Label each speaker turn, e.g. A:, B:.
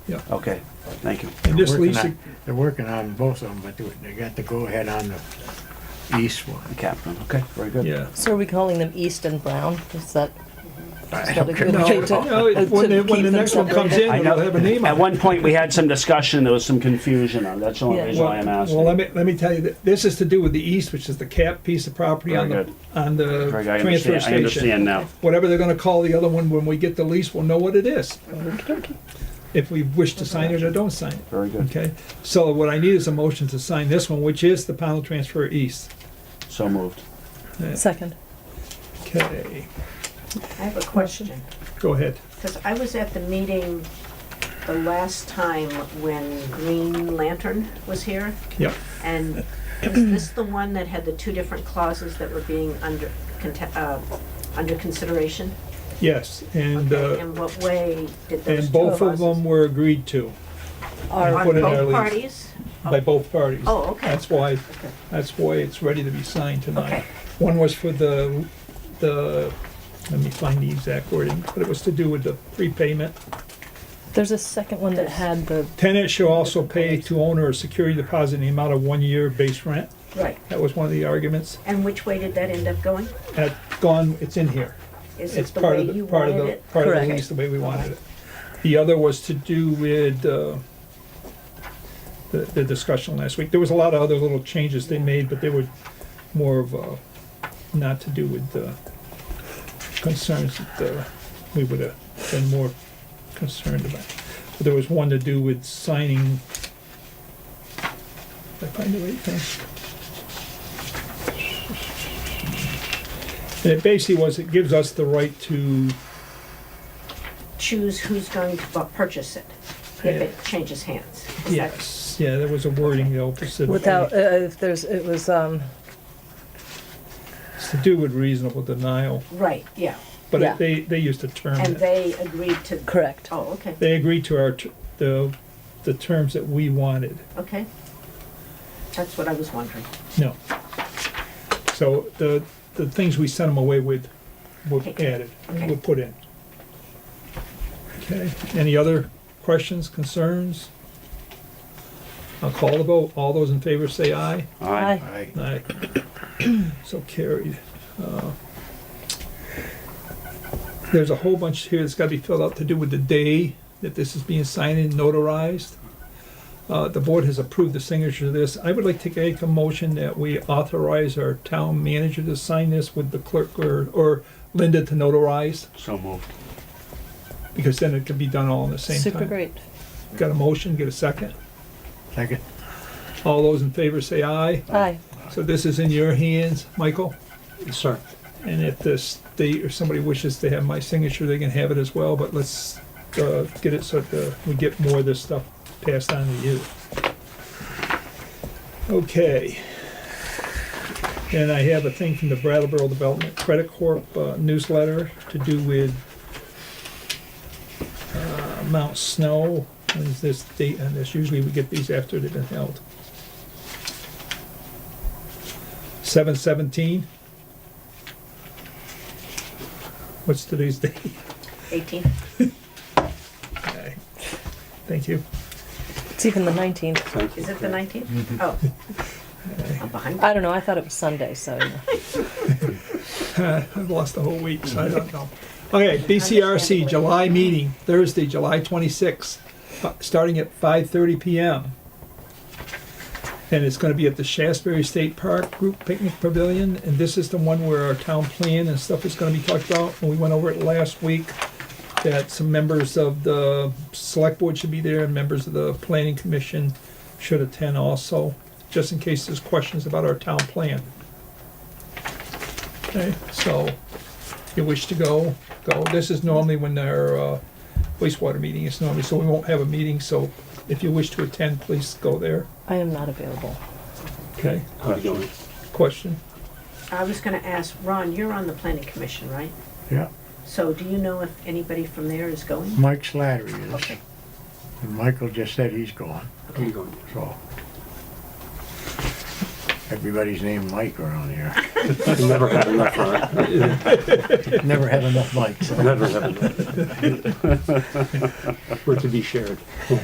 A: Yeah.
B: Okay, thank you.
A: And this
C: They're working
A: lease,
C: on- They're working on both of them, but they- they got the go-ahead on the east
B: The
C: one.
B: captain, okay, very good.
A: yeah.
D: So are we calling them East and Brown? Is that?
C: I
D: not a
C: don't care.
D: good
A: No,
D: way to-
B: Uh,
A: no, it- Oh, when
D: to
A: the, when
D: keep
A: the
D: them
A: next one comes
D: separated?
A: in,
B: I
A: it'll
B: know,
A: have a name
B: at
A: on it.
B: one point, we had some discussion, there was some confusion on, it. that's the only
D: Yeah.
B: reason why I'm
A: Well, well, let
B: asking.
A: me, let me tell you, that this is to do with the east, which is the cap piece of property on
B: Very
A: the,
B: good.
A: on the
B: Greg, I
A: transfer
B: understand, I
A: station.
B: understand now.
A: Whatever they're gonna call the other one, when we get the lease, we'll know what it is. If we wish to sign it or don't sign it,
B: Very good,
A: okay? So what I need is a motion to sign this one, which is the panel transfer east.
B: so moved.
D: Second.
A: Okay,
E: I have a question,
A: go ahead.
E: because I was at the meeting the last time when Green Lantern was here,
A: Yeah,
E: and is this the one that had the two different clauses that were being under, conte- uh, under consideration?
A: yes, and, uh,
E: In what way did those
A: and
E: two
A: both of
E: clauses?
A: them were agreed to
D: Or,
A: Are- put
E: On
A: in our
E: both
A: lease.
E: parties?
A: by both parties.
E: Oh, okay.
A: That's why, that's why it's ready to be signed tonight.
E: Okay.
A: One was for the, the, let me find the exact wording, but it was to do with the prepayment.
D: there's a second one that had the,
A: Tenant shall also pay to owner a security deposit in the amount of one year base rent.
E: Right,
A: That was one of the arguments.
E: and which way did that end up going?
A: That's gone, it's in here.
E: Is
A: It's
E: it the
A: part
E: way
A: of the,
E: you
A: part of
E: wanted
A: the,
E: it?
A: part of
D: Correct.
A: the lease, the way we wanted it. The other was to do with, uh, the, the discussion last week. There was a lot of other little changes they made, but they were more of, uh, not to do with, uh, concerns that, uh, we would have been more concerned about. But there was one to do with signing. Did I find the right thing? And it basically was, it gives us the right to
E: Choose who's going to bu- purchase it if
A: Yeah.
E: it changes hands. Is that-
A: Yes, yeah, there was a wording though, specifically.
D: without, uh, if there's, it was, um,
A: It's to do with reasonable denial,
E: Right, yeah,
A: but
D: Yeah.
A: it- they, they used a term.
E: and
A: that-
E: they agreed to,
D: correct.
E: oh, okay,
A: They agreed to our, t- the, the terms that we wanted,
E: okay. That's what I was wondering.
A: no. So the, the things we sent them away with were added, were put in. Okay, any other questions, concerns? I'll call the vote, all those in favor say aye.
B: All right,
D: Aye.
C: Aye.
A: Aye. So carried. Uh, There's a whole bunch here that's gotta be filled out to do with the day that this is being signed and notarized. Uh, the board has approved the signature of this. I would like to make a motion that we authorize our town manager to sign this with the clerk or, or Linda to notarize,
B: so moved.
A: because then it can be done all in the same time.
D: Super great.
A: Got a motion, get a second.
C: Second,
A: All those in favor say aye.
D: Aye.
A: So this is in your hands, Michael?
C: sir.
A: And if the state or somebody wishes to have my signature, they can have it as well, but let's uh, get it so that uh, we get more of this stuff passed on to you. Okay. And I have a thing from the Brattleboro Development Credit Corp uh, newsletter to do with uh, Mount Snow. When is this date on this? Usually we get these after they've been held. Seven seventeen? What's today's date?
E: 18?
A: Okay. Thank you.
D: It's even the 19th.
B: Thank you.
E: Is it the 19th? Oh. I'm behind.
D: I don't know, I thought it was Sunday, so. you know.
A: I've lost the whole week, so I don't know. Okay, BCRC, July meeting, Thursday, July twenty-sixth, starting at five thirty PM. And it's gonna be at the Shasberry State Park Group Picnic Pavilion, and this is the one where our town plan and stuff is gonna be talked about, and we went over it last week. That some members of the select board should be there, and members of the planning commission should attend also, just in case there's questions about our town plan. Okay, so if you wish to go, go. This is normally when our uh, wastewater meeting is normally, so we won't have a meeting, so if you wish to attend, please go there.
D: I am not available.
A: Okay,
B: How you doing?
A: question?
E: I was gonna ask, Ron, you're on the planning commission, right?
C: Yeah,
E: So do you know if anybody from there is going?
C: Mike Slattery is,
E: Okay,
C: and Michael just said he's going,
B: How you going?
C: so. everybody's name Mike around here.
F: Never had enough, huh?
C: Never had enough Mikes.
F: Never had enough. We're to be shared.